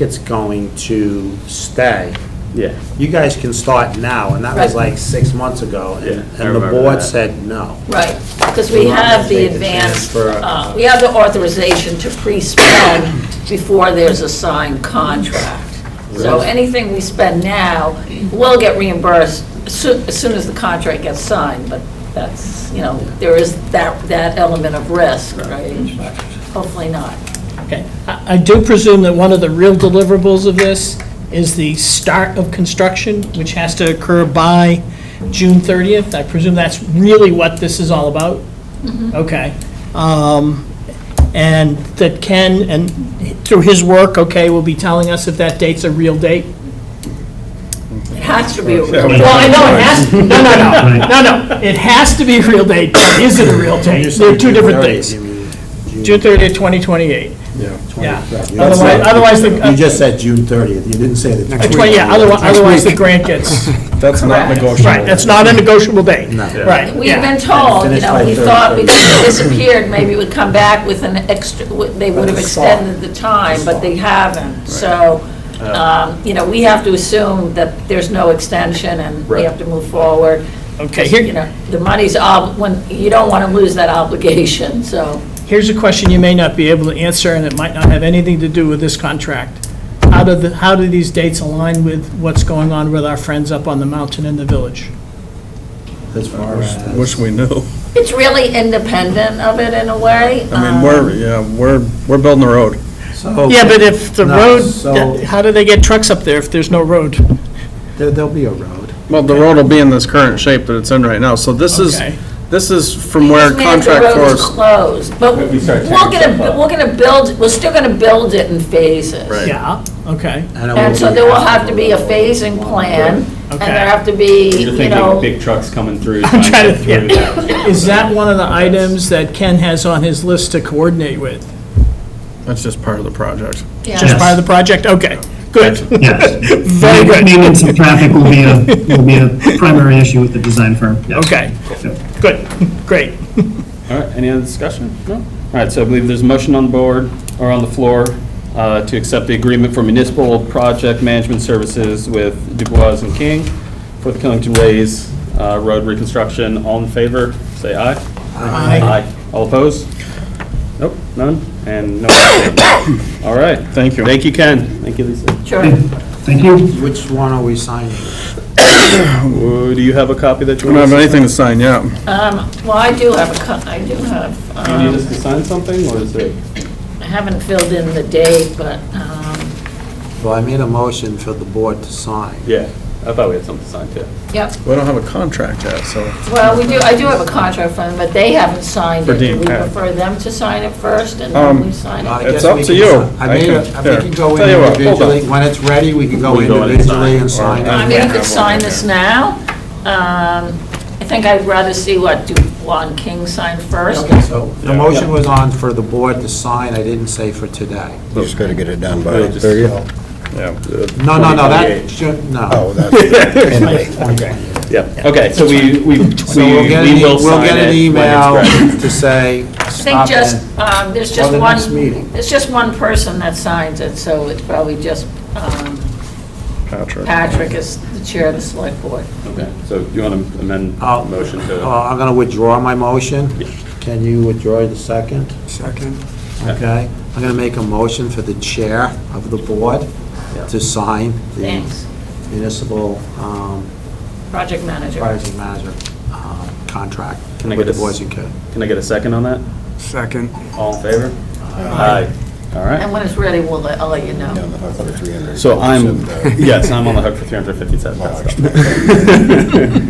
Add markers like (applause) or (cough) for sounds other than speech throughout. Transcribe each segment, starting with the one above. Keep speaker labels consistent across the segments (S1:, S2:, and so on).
S1: it's going to stay.
S2: Yeah,
S1: You guys can start now, and that was
S3: Right.
S1: like six months ago. and-
S2: Yeah, I
S1: And the
S2: remember
S1: board
S2: that.
S1: said no.
S3: Right, because we
S1: We're not
S3: have the
S1: making the
S3: advance,
S1: transfer.
S3: uh, we have the authorization to pre-spend before there's a signed contract. So
S1: Right.
S3: anything we spend now will get reimbursed soo- as soon as the contract gets signed, but that's, you know, there is that, that element of risk, right? Hopefully not.
S4: Okay. I I do presume that one of the real deliverables of this is the start of construction, which has to occur by June 30th. I presume that's really what this is all about? Okay. Um, And that Ken, and through his work, okay, will be telling us if that date's a real date?
S3: It has to be, a-
S4: Well, I know it has, no, no, no, no, no. It has to be a real date, but is it a real date? They're two different things. June 30th, 2028. Yeah. Otherwise, otherwise the-
S1: You just said June 30th, you didn't say the next week.
S4: Uh, Twenty, yeah, otherwise, otherwise the grant gets,
S5: That's not negotiable.
S4: right, that's not a negotiable date.
S1: No.
S4: Right,
S3: we've
S4: yeah.
S3: been told, you
S1: Finished
S3: know,
S1: by
S3: we
S1: third,
S3: thought
S1: third.
S3: because it disappeared, maybe it would come back with an extra, w- they would have
S1: That's a start.
S3: extended the time, but they haven't. So, um, you know, we have to assume that there's no extension and we
S2: Right.
S3: have to move forward.
S4: Okay,
S3: You
S4: here,
S3: know, the money's, ob- when, you don't want to lose that obligation, so.
S4: here's a question you may not be able to answer, and it might not have anything to do with this contract. How do the, how do these dates align with what's going on with our friends up on the mountain in the village?
S1: As far as-
S5: Wish we knew.
S3: It's really independent of it in a way. Um,
S5: I mean, we're, yeah, we're, we're building the road.
S4: Yeah, but if the
S1: No,
S4: road,
S1: so-
S4: how do they get trucks up there if there's no road?
S1: There- There'll be a road.
S5: Well, the road will be in this current shape that it's in right now, so this is,
S4: Okay.
S5: this is from where
S3: Just means the
S5: contract
S3: road is
S5: force.
S3: closed, but we're
S6: But we start tearing
S3: going
S6: stuff
S3: to,
S6: up.
S3: we're going to build, we're still going to build it in phases.
S5: Right.
S4: Yeah, okay,
S1: it
S3: And so there will have to be a
S1: phasing
S3: phasing plan, and
S4: Okay.
S3: there have to be,
S6: You're
S3: you
S6: thinking
S3: know,
S6: big trucks coming through.
S4: I'm
S6: trying
S4: trying
S6: to
S4: to-
S6: get through
S4: yeah.
S6: that.
S4: is that one of the items that Ken has on his list to coordinate with?
S5: That's just part of the project.
S4: Just
S3: yeah,
S4: part of the project, okay, good,
S7: (laughs) Yes.
S4: very good.
S7: Maintenance of traffic will be a, will be a primary issue with the design firm. Yes.
S4: Okay, good, great.
S6: All right, any other discussion? No? All right, so I believe there's a motion on the board or on the floor uh, to accept the agreement for municipal project management services with Dubois and King for the Killington Ways uh, Road reconstruction. All in favor, say aye. Aye. All opposed? Nope, none, and no. All right.
S5: Thank you.
S6: Thank you, Ken. Thank you, Lisa.
S3: sure.
S7: Thank you.
S1: Which one are we signing?
S6: Would- Do you have a copy that you
S5: We
S6: want
S5: don't
S6: to
S5: have
S6: sign?
S5: anything to sign yet.
S3: Um, Well, I do have a, co- I do have,
S6: Do you need
S3: um,
S6: us to sign something, or is it?
S3: I haven't filled in the date, but, um,
S1: Well, I made a motion for the board to sign.
S6: Yeah, I thought we had something signed, too.
S3: yep,
S5: We don't have a contract yet, so.
S3: well, we do, I do have a contract for them, but they haven't signed
S5: For
S3: it. Do
S5: Dean
S3: we
S5: Pat.
S3: prefer them to sign it first and then
S5: Um,
S3: we sign
S1: I
S3: it?
S1: guess
S5: It's up
S1: we
S5: to
S1: can
S5: you.
S1: si- I
S5: I
S1: made,
S5: can-
S1: a- I
S5: here.
S1: think you go
S5: Tell you what, hold
S1: individually,
S5: on.
S1: when it's ready, we can go
S6: We can go in and
S1: individually
S6: sign.
S1: and sign
S5: Or-
S3: I
S1: it.
S3: mean, you could sign this now. Um, I think I'd rather see what Dubois and King sign first.
S1: Okay, so the motion was on for the board to sign, I didn't say for today.
S8: Just got to get it done by
S6: Really
S1: (laughs)
S6: just-
S8: 30th.
S5: Yeah.
S1: No, no, no, that
S6: 28.
S1: should, no.
S8: Oh, that's, anyway.
S6: Yeah, okay, so we, we, we we will
S1: So we'll get, an e- we'll
S6: sign
S1: get an
S6: it when it's
S1: email
S6: ready.
S1: to say,
S3: I think
S1: stop
S3: just,
S1: it.
S3: um, there's
S1: Or
S3: just
S1: the
S3: one,
S1: next meeting.
S3: there's just one person that signs it, so it's probably just um,
S5: Patrick.
S3: Patrick is the chair of the select board.
S6: Okay, so do you want to amend the
S1: I'll-
S6: motion
S1: Uh,
S6: to?
S1: I'm gonna withdraw my motion. Can you withdraw the second?
S5: Second.
S1: Okay, I'm gonna make a motion for the chair of the board to sign the
S3: Thanks,
S1: municipal um,
S3: project manager.
S1: project manager um, contract
S6: Can I
S1: with the
S6: get a s-
S1: Boys and Kid.
S6: Can I get a second on that?
S5: Second.
S6: All in favor? Aye. All
S3: And
S6: right,
S3: when it's ready, we'll let, I'll let you know.
S8: Down the hook for 300.
S6: so I'm,
S1: (laughs)
S6: yes, I'm on the hook for 357. That's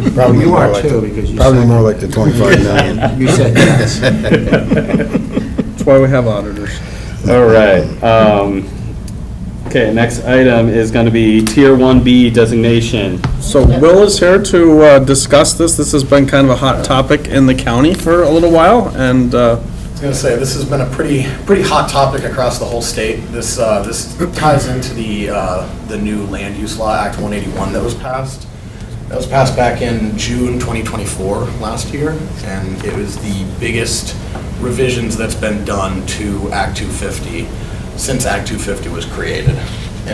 S6: fine.
S8: Probably
S1: You
S8: more
S1: are
S8: like
S1: too,
S8: the-
S1: because you
S8: Probably
S1: said,
S8: more like the 25 million.
S1: you said yes.
S5: (laughs)
S8: (laughs)
S5: That's why we have auditors.
S6: (laughs) All right. um, Okay, next item is going to be Tier 1B designation.
S5: So Will is here to uh, discuss this. This has been kind of a hot topic in the county for a little while, and uh,
S9: I was gonna say, this has been a pretty, pretty hot topic across the whole state. This, uh, this ties into the, uh, the new Land Use Law, Act 181 that was passed. That was passed back in June 2024, last year, and it was the biggest revisions that's been done to Act 250 since Act 250 was created.